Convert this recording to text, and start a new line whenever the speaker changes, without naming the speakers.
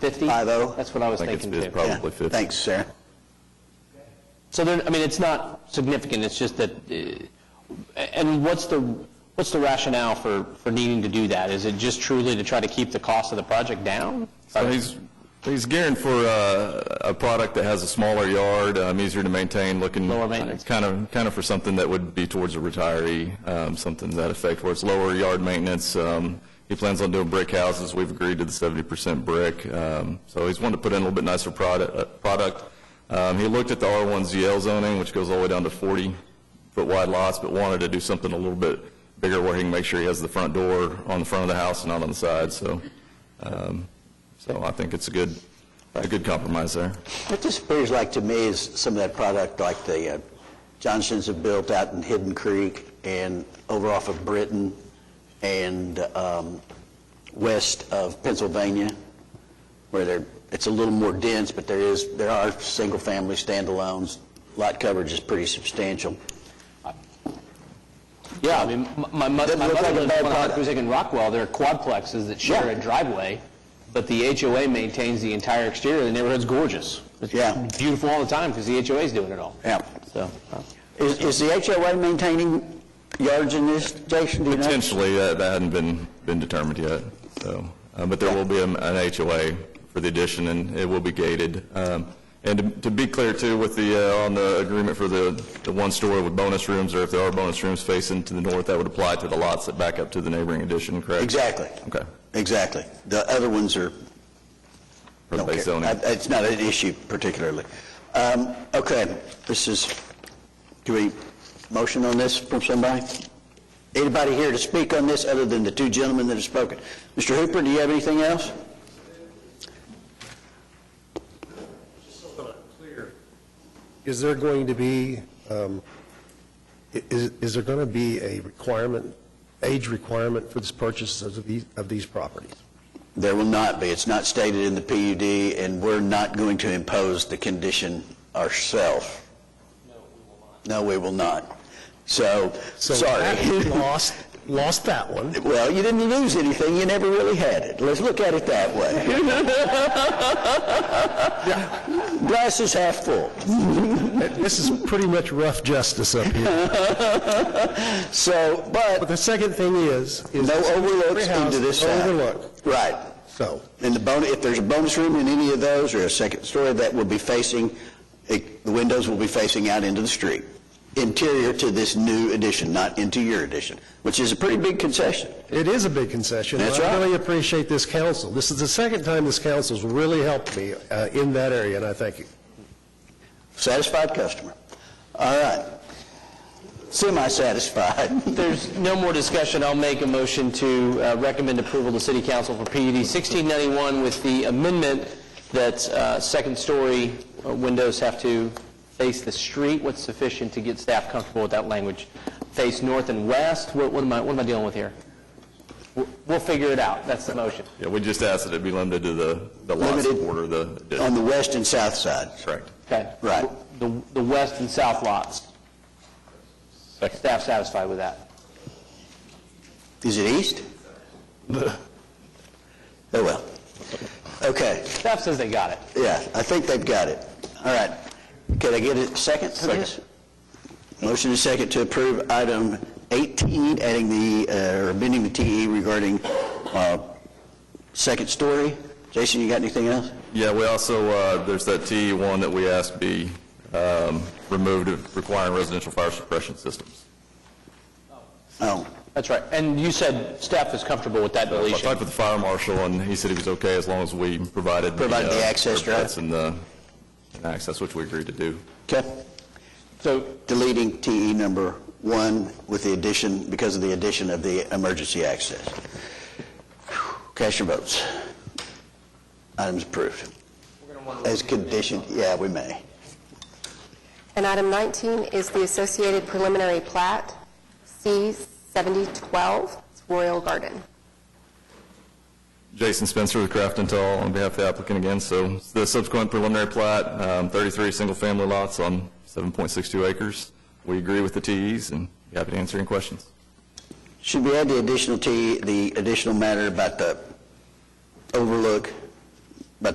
50?
Five-oh.
That's what I was
I think it's-
thinking,
it's
too.
probably 50.
Thanks, Sarah.
So there, I mean, it's not significant, it's just that, uh, and what's the, what's the rationale for, for needing to do that? Is it just truly to try to keep the cost of the project down?
So he's, he's gearing for uh, a product that has a smaller yard, um, easier to maintain, looking.
Lower maintenance.
Kind of, kind of for something that would be towards a retiree, um, something to that effect, where it's lower yard maintenance. Um, He plans on doing brick houses, we've agreed to the 70% brick. Um, So he's wanting to put in a little bit nicer product. uh, product. Um, He looked at the R1ZL zoning, which goes all the way down to 40-foot wide lots, but wanted to do something a little bit bigger where he can make sure he has the front door on the front of the house and not on the side, so. um, so I think it's a good, a good compromise there.
What this appears like to me is some of that product like the uh, Johnsons have built out in Hidden Creek and over off of Britain and um, west of Pennsylvania, where they're, it's a little more dense, but there is, there are single-family standalones. Lot coverage is pretty substantial.
Yeah, I mean, m- my mother,
Doesn't
my
look
mother
like a
lives
bad
on
product.
Huckabee in Rockwell, there are quadplexes that share
Yeah.
a driveway, but the HOA maintains the entire exterior, the neighborhood's gorgeous. It's
Yeah.
Beautiful all the time, because the HOA's doing it all.
Yeah.
So, uh,
Is is the HOA maintaining yards in this, Jason, do you know?
Potentially, that that hadn't been, been determined yet, so, uh, but there will be an an HOA for the addition, and it will be gated. Um, And to- to be clear, too, with the, uh, on the agreement for the, the one story with bonus rooms, or if there are bonus rooms facing to the north, that would apply to the lots that back up to the neighboring addition, correct?
Exactly.
Okay.
Exactly. The other ones are
For the
Don't
base
care.
zoning.
I- It's not an issue particularly. Um, Okay, this is, do we, motion on this from somebody? Anybody here to speak on this other than the two gentlemen that have spoken? Mr. Hooper, do you have anything else?
Is there going to be, um, i- is is there going to be a requirement, age requirement for this purchase of these, of these properties?
There will not be. It's not stated in the PUD, and we're not going to impose the condition ourselves. No, we will not. So, sorry.
So that- lost, lost that one.
Well, you didn't lose anything. You never really had it. Let's look at it that way. Glass is half full.
This is pretty much rough justice up here.
So,
But
but
the second thing is, is...
no overlooks
every house
into this
is
side.
Overlook,
Right.
so...
And the bonus, if there's a bonus room in any of those or a second story, that will be facing, it- the windows will be facing out into the street. Interior to this new addition, not into your addition, which is a pretty big concession.
It is a big concession. and
That's
I
right.
really appreciate this council. This is the second time this council's really helped me uh, in that area, and I thank you.
Satisfied customer. All right. Semi-satisfied.
If there's no more discussion, I'll make a motion to uh, recommend approval to City Council for PUD 1691 with the amendment that uh, second-story uh, windows have to face the street. What's sufficient to get staff comfortable with that language? Face north and west? What what am I, what am I dealing with here? We'll- We'll figure it out. That's the motion.
Yeah, we just asked that it be limited to the, the lots that
Limited
border the
On
addition.
the west and south side.
Correct.
Okay.
Right.
The the west and south lots.
Second.
Staff satisfied with that?
Is it east? Oh, well. Okay,
Staff says they got it.
yeah, I think they've got it. All right. Can I get a second to this? Motion is second to approve item 18, adding the, uh, or amending the TE regarding uh, second story. Jason, you got anything else?
Yeah, we also, uh, there's that TE1 that we asked be um, removed of requiring residential fire suppression systems.
Oh,
That's right. And you said staff is comfortable with that
I
deletion?
talked with the fire marshal, and he said he was okay as long as we provided.
Provided the
uh,
access, right?
cuts And the and access, which we agreed to do.
okay.
So
Deleting TE number one with the addition, because of the addition of the emergency access. Cast your votes. Item's approved. As conditioned, yeah, we may.
And item 19 is the Associated Preliminary Plat, C-7012, It's Royal Garden.
Jason Spencer with Craft and Tall on behalf of the applicant again. So the subsequent preliminary plat, um, 33 single-family lots on 7.62 acres. We agree with the TEs, and be happy to answer any questions.
Should we add the additional TE, the additional matter about the overlook